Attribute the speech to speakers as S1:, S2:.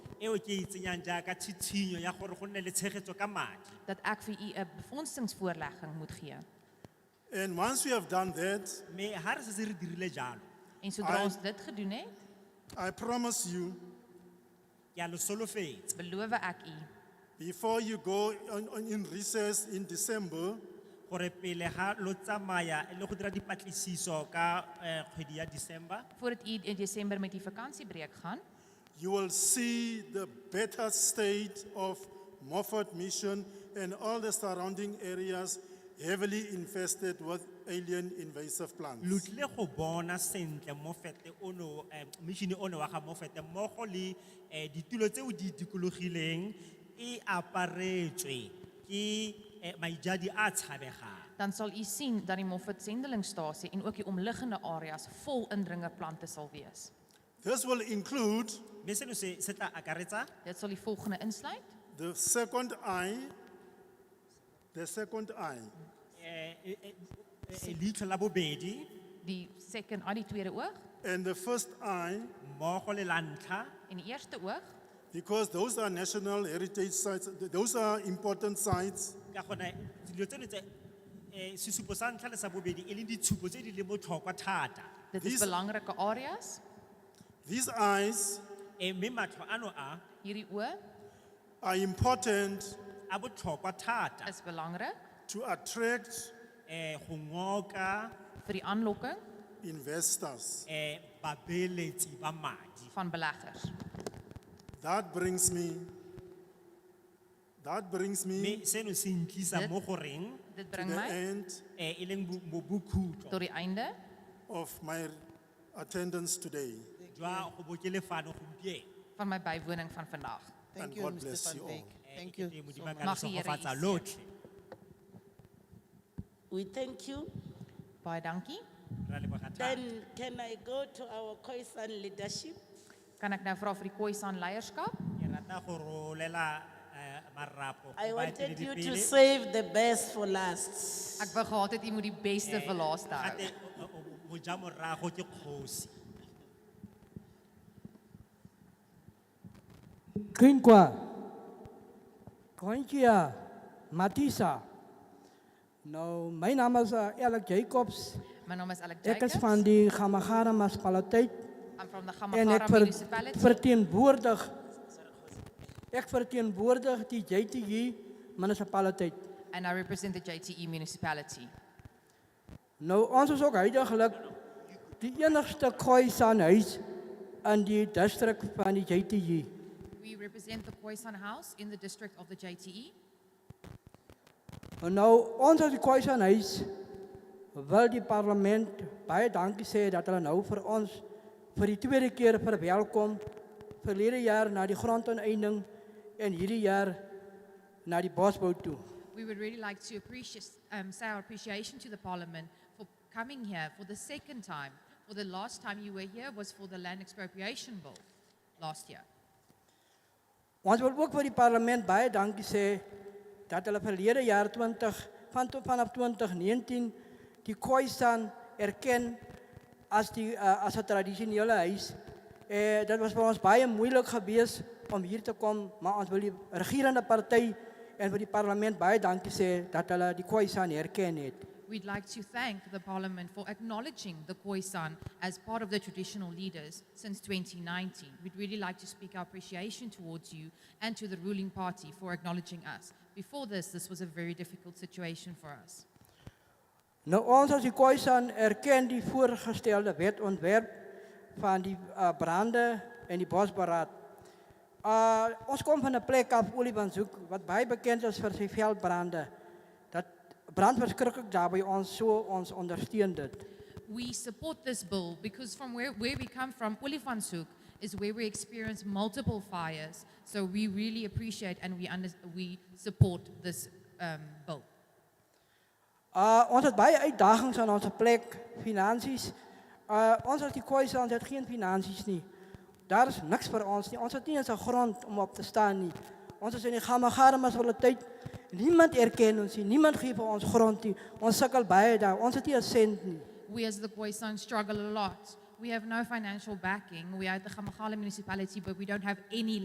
S1: eo ke e tsenyang jaaka tshitshinyo ya gore go nne le tshegetso ka madi
S2: dat ek vir u 'n befondsingsvoorlegging moet gee.
S3: And once we have done that,
S1: mme ga re setse re dirile jalo
S2: En sodra
S3: I-
S2: ons dit gedoen het,
S3: I promise you,
S1: ke a le solofetsa
S2: beloof ek u
S3: before you go on, on in recess in December,
S1: gore pele ga lo tsamaya le go dira dipatlisiso ka eh, kgwedi ya december
S2: voordat u in Desember met die vakansiebreek gaan,
S3: you will see the better state of Moffat Mission and all the surrounding areas heavily infested with alien invasive
S1: lo
S3: plants.
S1: tlile go bona sentle mofete ono mišene ono wa ga mofete mmogo le eh, ditulo tseo di dikologileng e aparetswe ke eh, maijadi a tshabegang
S2: dan sal u sien dat die Moffat sendelingstasie en ook die omliggende areas vol indringerplante sal wees.
S3: This will include
S1: mme seno se se tla akaretsa
S2: Dit sal die volgende insluit:
S3: the second eye, the second eye,
S1: eh, eh, eh, eh, leitlho la bobedi
S2: die second eye, die tweede oog
S3: and the first eye,
S1: mmogo le la ntlha
S2: en die eerste oog,
S3: because those are national heritage sites, th- those are important sites.
S1: ka gona dilo tseno tse eh, sesupo sa ntlha le sa bobedi e leng ditshupo tse di le botlhokwa thata
S2: dit is
S3: Dis-
S2: belangrike areas.
S3: These eyes
S1: Eh, mme matlho ano a
S2: Hierdie oë
S3: are important
S1: a botlhokwa thata
S2: is belangrik
S3: to attract
S1: eh, go ngoka
S2: vir die aanlokking
S3: investors.
S1: eh, babeeletsi ba madi
S2: van beleggers.
S3: That brings me, that brings me
S1: mme seno se ntlisa
S2: Dit-
S1: mo goreng
S2: Dit
S3: to
S2: bring
S3: the
S2: my
S3: end
S1: eh, e leng bo- bo- bokhutlo
S2: tot die einde
S3: of my attendance today.
S1: jwa go bokelefano gompieno
S2: van my bywoning van vandag.
S3: And
S4: Thank you,
S3: God
S4: Mr.
S3: bless
S4: Van
S3: you all.
S4: Wyk.
S1: Eh,
S4: Thank
S1: ke
S4: you
S1: teng
S4: so
S1: modimo a ka re
S4: much.
S2: Mag die Here
S1: segofatsa
S2: u seën.
S1: lotlhe
S4: We thank you.
S2: Baie dankie.
S1: ra leboga thata
S4: Then can I go to our Khoisan leadership?
S2: Kan ek nou vra vir die Khoisan leierskap?
S1: ke rata go rolela eh, marapo go
S4: I wanted you to
S1: baeteledipele.
S4: save the best for last.
S2: Ek wou gehad het u moet die beste vir laaste hou.
S1: Gate, o- o- o- mojamorago ke kgosi
S5: Quinqua, Quintia, Matisa. Nou, mijn naam is eh, Alec Jacobs.
S2: My naam is Alec
S5: Ik is
S2: Jacobs.
S5: van die Gamagara municipaliteit.
S2: I'm from the
S5: En ik
S2: Gamagara
S5: ver-
S2: municipality.
S5: vertegenwoordig, ik vertegenwoordig die JTG municipaliteit.
S2: And I represent the JTE municipality.
S5: Nou, ons is ook huidiglijk die enigste Khoisan huis in die district van die JTG.
S2: We represent the Khoisan House in the district of the E. JTE.
S5: Nou, ons as die Khoisan huis wil die parlement baie dankie sê dat hulle nou vir ons vir die tweede keer verwelkom verlede jaar na die grondoneinding en hierdie jaar na die bosbou toe.
S2: We would really like to appreciate, um, say our appreciation to the Parliament for coming here for the second time. For the last time you were here was for the land expropriation bill last year.
S5: Ons wil ook vir die parlement baie dankie sê dat hulle verlede jaar 20 van tot vanaf 2019 die Khoisan erken as die uh, as 'n tradisionele huis. Eh dit was vir ons baie moeilik geweest om hier te kom, maar ons wil die regerende party en vir die parlement baie dankie sê dat hulle die Khoisan erken het.
S2: We'd like to thank the Parliament for acknowledging the Khoisan as part of the traditional leaders since 2019. We'd really like to speak our appreciation towards you and to the ruling party for acknowledging us. Before this, this was a very difficult situation for us.
S5: Nou ons as die Khoisan erken die voorgestelde wetontwerp van die uh, brande en die bosberaad. Uh ons kom van 'n plek af Olifantshoek wat baie bekend is vir sy veldbrande. Dat brand verskriklik daar by ons so ons ondersteun dit.
S2: We support this bill because from where, where we come from, Olifantshoek is where we experience multiple fires. So we really appreciate and we, under, we support this um, bill.
S5: Uh ons het baie uitdagings aan ons plek, finansies. Uh ons as die Khoisan het geen finansies nie. Daar is niks vir ons nie. Ons het nie eens 'n grond om op te staan nie. Ons is in die Gamagara munisipaliteit. Niemand erken ons nie. Niemand gee vir ons grond nie. Ons sukkel baie daar. Ons het nie 'n sent nie.
S2: We as the Khoisan struggle a lot. We have no financial backing. We are at the Gamagala municipality, but we don't have any